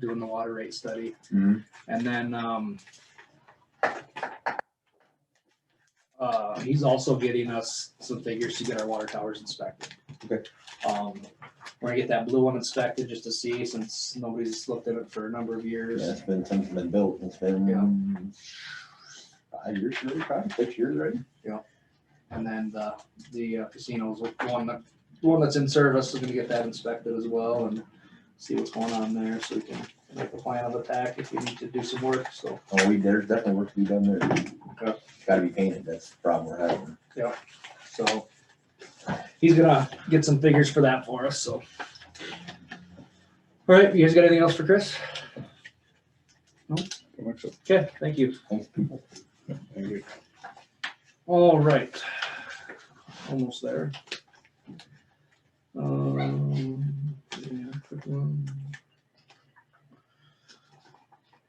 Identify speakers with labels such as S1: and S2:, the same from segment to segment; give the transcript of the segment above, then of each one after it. S1: doing the water rate study.
S2: Mhm.
S1: And then, um, uh, he's also getting us some figures to get our water towers inspected.
S2: Okay.
S1: Um, we're gonna get that blue one inspected just to see, since nobody's looked at it for a number of
S2: Yeah,
S1: years.
S2: it's been, since it's been built, it's been uh, five years, really, five, six years, right?
S1: And then the, the uh, casinos, the one that, the one that's in service is gonna get that inspected as well and see what's going on there, so we can make a plan of attack if we need to do some work, so.
S2: Oh, we, there's definitely work to be done there.
S1: Okay.
S2: Gotta be painted, that's the problem we're having.
S1: So he's gonna get some figures for that for us, so. All right, you guys got anything else for Chris?
S3: Pretty much it.
S1: Okay, thank you.
S2: Thanks, people.
S3: Thank you.
S1: All right. Almost there. Um, yeah, quick one.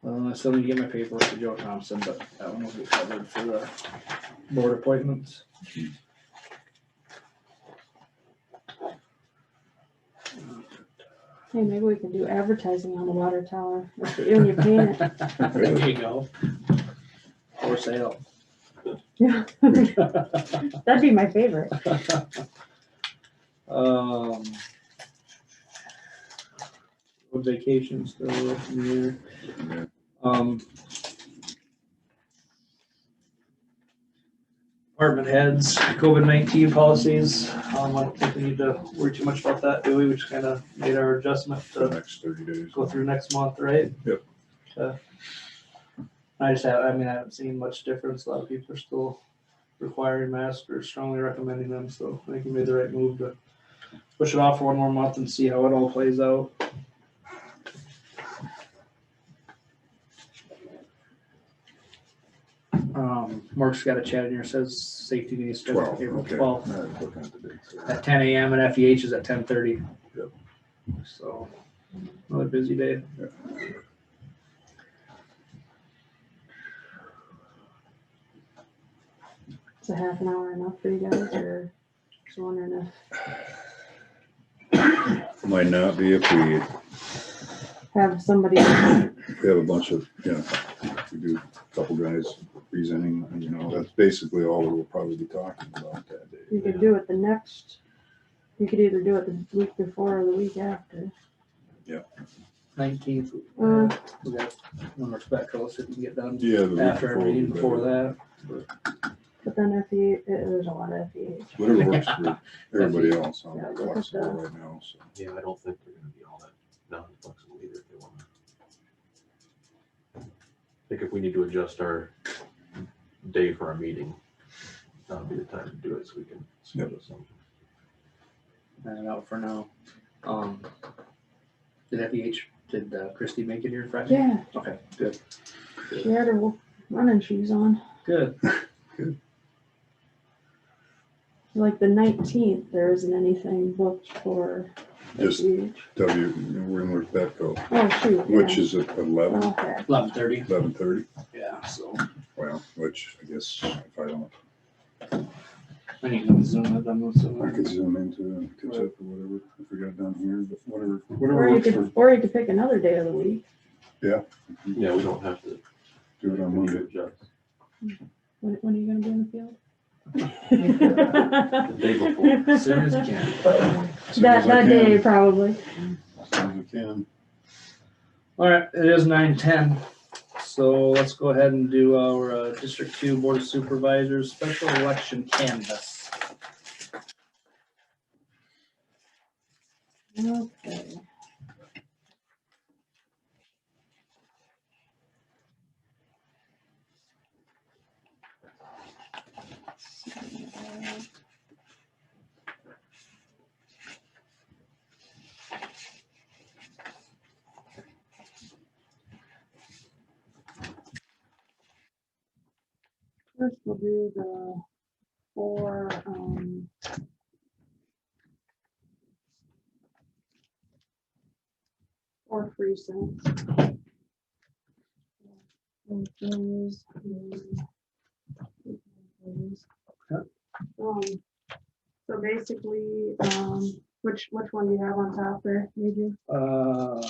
S1: Uh, I still need to get my paperwork to Joe Thompson, but that one will be covered for the board appointments.
S4: Hey, maybe we can do advertising on the water tower with the- when you paint it.
S1: There you go. For sale.
S4: Yeah, that'd be my favorite.
S1: Um. road Vacation still up in the air. Um. Department heads, COVID nineteen policies, um, I don't think we need to worry too much about that, do we? We just kind of made our adjustment
S3: The
S1: to
S3: next thirty days.
S1: go through next month, right?
S3: Yep.
S1: Okay. I just have, I mean, I haven't seen much difference. A lot of people are still requiring masks or strongly recommending them, so I think we made the right move to push it off for one more month and see how it all plays out. Um, Mark's got a chat in here, says safety needs to
S3: Twelve,
S1: April
S3: okay.
S1: twelfth
S3: I was looking at the dates there.
S1: at ten AM and FEH is at ten thirty.
S3: Yep.
S1: So, another busy day.
S3: Yep.
S4: Is a half an hour enough for you guys or just wondering if
S3: Might not be if we
S4: have somebody,
S3: We have a bunch of, you know, we do a couple guys presenting, and you know, that's basically all we'll probably be talking about that day.
S4: you could do it the next, you could either do it the week before or the week after.
S1: Nineteenth,
S4: Uh,
S1: we got one more spectral, see if we can get done
S3: Yeah. the week
S1: after our
S3: before
S1: meeting
S3: would be
S1: before
S3: better.
S1: that.
S4: but then if you, there's E a lot of E FEH.
S3: Whatever works for everybody else, I'm not flexible right now, so.
S5: Yeah, I don't think they're gonna be all that non-flexible either if they wanna. I think if we need to adjust our day for our meeting, that'll be the time to do it, so we can schedule something.
S1: And out for now. Um, did FEH, did uh, Christie make it here Friday?
S4: Yeah,
S1: Okay, good,
S4: she had her running shoes on.
S1: good.
S4: Like the nineteenth, there isn't anything booked for
S3: Just-
S4: FEH.
S3: W, we're in North Bedco,
S4: Oh, shoot. yeah.
S3: which is at eleven,
S4: Okay.
S1: Eleven thirty,
S3: eleven thirty,
S1: yeah, so
S3: well, which I guess if I don't,
S1: I need to zoom it, I'm
S3: I
S1: zooming.
S3: could zoom into, and catch up or whatever, if we got down here, but whatever, whatever
S4: Or you
S3: works
S4: could,
S3: for,
S4: or you could pick another day of the week.
S5: Yeah, we don't have to,
S3: do it
S5: we
S3: on
S5: need to
S3: Monday.
S5: adjust
S4: When, when are you gonna be in the field?
S5: the day before.
S1: As soon as you can.
S3: As soon
S4: That,
S3: as I
S4: that
S3: can,
S4: day, probably.
S3: As soon as I can,
S1: All right, it is nine ten, so let's go ahead and do our uh, District Two Board of Supervisors Special Election Canvas.
S4: Okay. First, we'll do the four, um, Or free cents. And those, um, Um, so basically, um, which, which one do you have on top there, Adrian?
S1: Uh,